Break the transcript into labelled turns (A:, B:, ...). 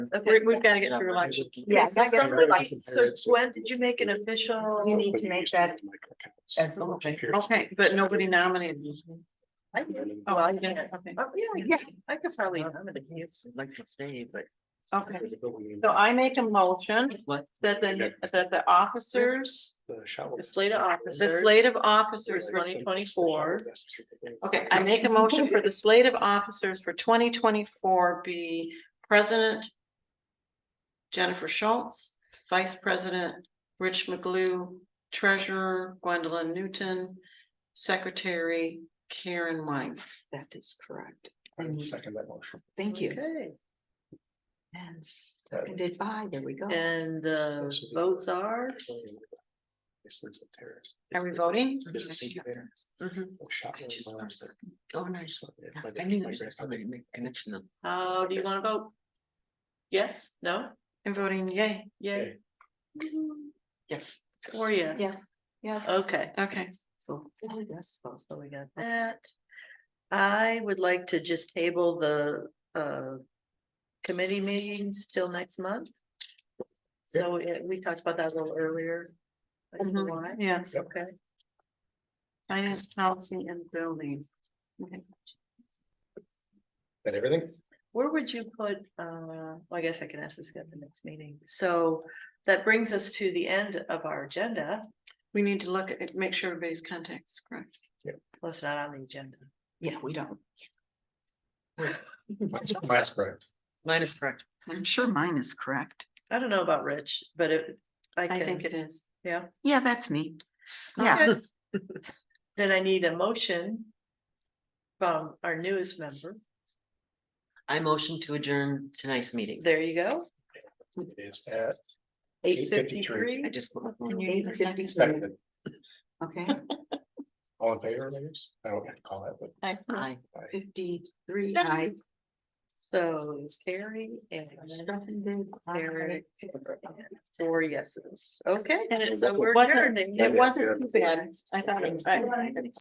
A: Okay, we've got to get through like.
B: Yeah,
A: So
B: I guess-
A: something like- so Gwen, did you make an official?
B: You need to make that as a motion.
A: Okay, but nobody nominated. you.
C: I did.
A: Oh, I get it, okay.
C: Oh, yeah, yeah,
B: Yeah.
C: I could probably, I'm gonna give some, like, to stay, but.
A: Okay, so I make a motion
C: What?
A: that the, that the officers, the slate of officers, the slate of officers twenty twenty-four. Okay, I make a motion for the slate of officers for twenty twenty-four be President Jennifer Schultz, Vice President Rich McGlue, Treasurer Gwendolyn Newton, Secretary Karen Wines.
B: That is correct.
D: I
B: And
D: will second that motion.
B: thank you.
A: Okay,
B: And seconded by, there we go.
A: and the votes are,
D: This is a terrorist.
A: are we voting?
D: There's a secret there.
A: Mhm.
D: A shot
C: I
D: in
C: just
D: my
C: wanna
D: last
C: say-
D: second.
C: Oh, nice.
D: Yeah,
C: Yeah,
D: my
C: I
D: dad-
C: knew
D: my
C: there's just
D: grandfather-
C: somebody to make connection of.
A: How do you want to vote? Yes, no? I'm voting yay. Yay.
C: Yes.
A: Or yes.
B: Yeah, yeah.
A: Okay, okay.
C: So, oh, yes, so so we got that.
A: That
C: I would like to just table the, uh, committee meetings till next month. So uh, we talked about that a little earlier. as to
A: Mhm,
C: why.
A: yes.
C: Okay.
A: Finance policy and building. Okay.
D: That everything?
C: Where would you put, uh, well, I guess I can ask this at the next meeting. So that brings us to the end of our agenda.
A: We need to look at, it, make sure everybody's contacts correct.
C: Well, it's not on the agenda.
B: Yeah, we don't.
D: Mine's- Mine's correct.
C: Mine is correct.
B: I'm sure mine is correct.
C: I don't know about Rich, but it, I
A: I think
C: can,
A: it is.
C: yeah.
B: Yeah, that's me. Yeah,
C: Okay. Then I need a motion from our newest member.
E: I motion to adjourn tonight's meeting.
C: There you go.
D: It is at
C: Eight
D: 8:53.
E: I
C: fifty-three.
E: just.
A: Can you
B: eight
A: do the second?
B: fifty-three.
D: second.
B: Okay,
D: All in favor, ladies? I don't have to call that, but
A: I-
E: Aye.
B: fifty-three, I,
C: So it's Carrie and Eric. Four yeses. Okay.
A: And it's,
C: So we're
A: Wasn't-
C: adjourned.
A: it wasn't too bad. I thought it was. I-